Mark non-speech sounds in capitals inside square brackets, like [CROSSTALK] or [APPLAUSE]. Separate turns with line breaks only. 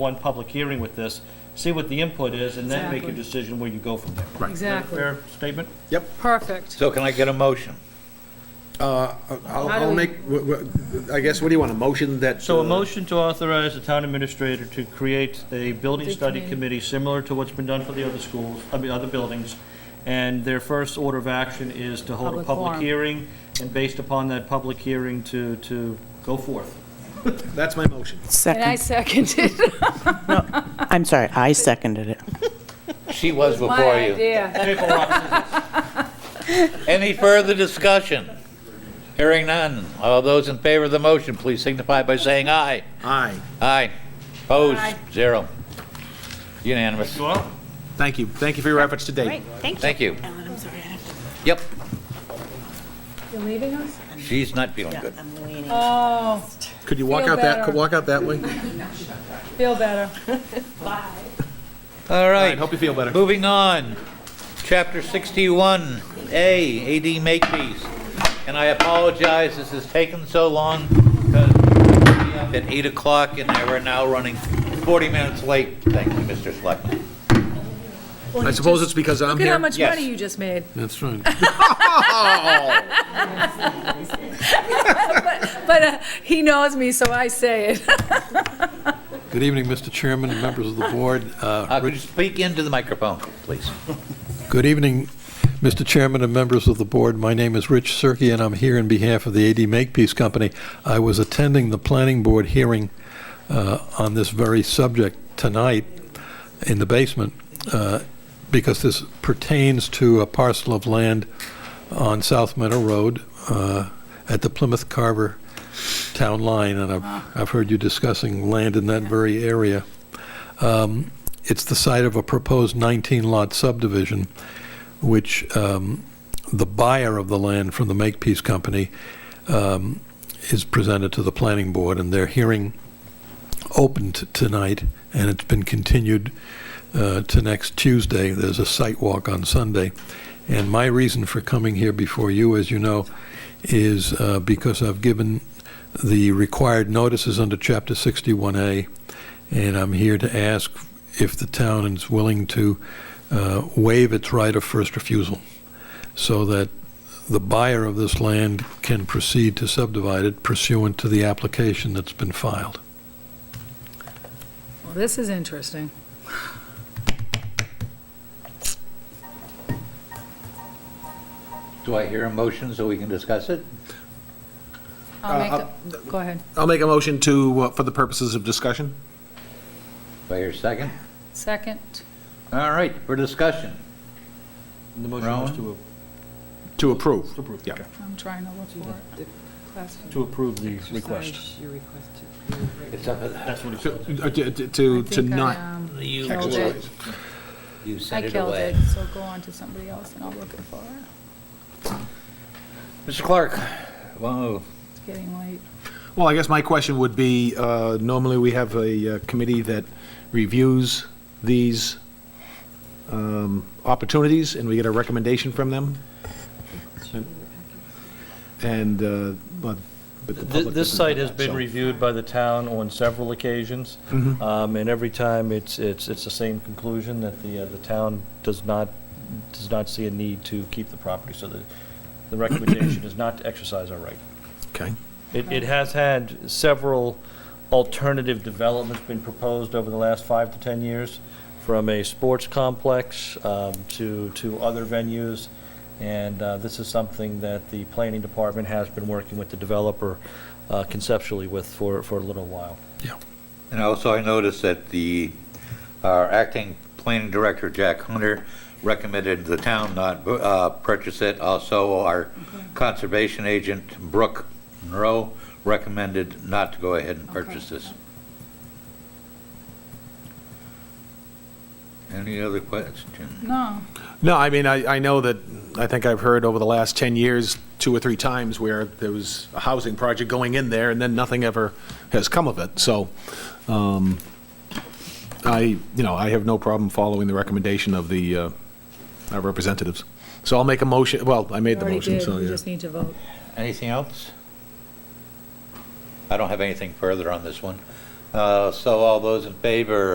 one public hearing with this, see what the input is, and then make a
Exactly.
decision where you go from there.
Exactly.
Fair statement?
Perfect.
So can I get a motion?
Uh, I'll,
How do
I'll
we-
make, w- w- I guess, what do you want, a motion that?
So a
uh,
motion to authorize the town administrator to create a building
The
study
committee.
committee similar to what's been done for the other schools, I mean, other buildings. And their first order of action is to hold a
Public
public
forum.
hearing, and based upon that public hearing, to, to go [LAUGHS] forth.
That's my motion.
And I
Second,
seconded.
I'm sorry, I seconded it.
She was [LAUGHS] before
My
you.
idea.
Paper rock,
Any further discussion? Hearing none. All those in favor of the motion, please signify by saying aye.
Aye.
Aye. Opposed,
Aye.
zero. Unanimous.
scissors. Well,
Thank you. Thank you for your efforts today.
Thank you. Yep,
You're leaving us?
she's not feeling good.
Oh,
Could you walk
Feel
out that,
better.
could walk out
[LAUGHS]
that way? All
feel better.
All
right,
right,
hope you feel better.
moving on. Chapter 61A, AD Makepeace. And I apologize, this has taken so long because we up at 8 o'clock and I were now running 40 minutes late. Thank you, Mr. Selectman.
I suppose it's because I'm
Look at how
here.
much
Yes.
money you just made.
That's
[LAUGHS]
right.
[LAUGHS] But uh, he knows me, so I say it. [LAUGHS]
Good evening, Mr. Chairman and members of the board. Uh,
Uh, Could you speak into the microphone, please?
Good evening, Mr. Chairman and members of the board. My name is Rich Cirque, and I'm here in behalf of the AD Makepeace Company. I was attending the planning board hearing uh, on this very subject tonight in the basement, uh, because this pertains to a parcel of land on South Meadow Road uh, at the Plymouth Carver Town Line, and I've I've heard you discussing land in that very area. Um, It's the site of a proposed 19-lot subdivision, which um, the buyer of the land from the Makepeace Company um, is presented to the planning board, and their hearing opened tonight, and it's been continued uh, to next Tuesday. There's a site walk on Sunday. And my reason for coming here before you, as you know, is uh, because I've given the required notices under Chapter 61A, and I'm here to ask if the town is willing to uh, waive its right of first refusal so that the buyer of this land can proceed to subdivide it pursuant to the application that's been filed.
Well, this is interesting.
Do I hear a motion so we can discuss it?
I'll make,
Uh,
a- go ahead.
I'll make a motion to, uh, for the purposes of discussion.
Do I hear a second?
Second.
All right, for discussion.
The motion was to,
To approve.
to approve,
Yeah.
okay.
I'm trying to look for it. Class-
to approve the request.
It's up to
That's what it
To,
says.
uh, to- to-
I
to, to
think I,
not.
um,
you.
Killed it.
You
I
sent it
killed
away.
it, so go on to somebody else and I'll look it for it.
Mr. Clark, wow,
It's getting late.
Well, I guess my question would be, uh, normally we have a uh, committee that reviews these um, opportunities, and we get a recommendation from them. And, uh, but, but the
Th-
public
This
doesn't
site
know
has
that,
been
so-
reviewed by the town on several occasions,
Mm-hmm.
Um, and every time, it's, it's, it's the same conclusion, that the, uh, the town does not, does not see a need to keep the property, so the, the recommendation is not to exercise our right.
Okay.
It, it has had several alternative developments been proposed over the last five to 10 years, from a sports complex um, to, to other venues, and uh, this is something that the planning department has been working with the developer uh, conceptually with for, for a little while.
And also, I noticed that the, our acting planning director, Jack Hunter, recommended the town not uh, purchase it. Also, our conservation agent, Brooke Monroe, recommended not to go ahead and purchase this. Any other questions?
No,
No, I mean, I, I know that, I think I've heard over the last 10 years, two or three times where there was a housing project going in there, and then nothing ever has come of it, so, um, I, you know, I have no problem following the recommendation of the, uh, our representatives. So I'll make a motion, well, I
you
made the
already
motion,
did.
so,
You
yeah.
just need to vote.
Anything else? I don't have anything further on this one. Uh, So all those in favor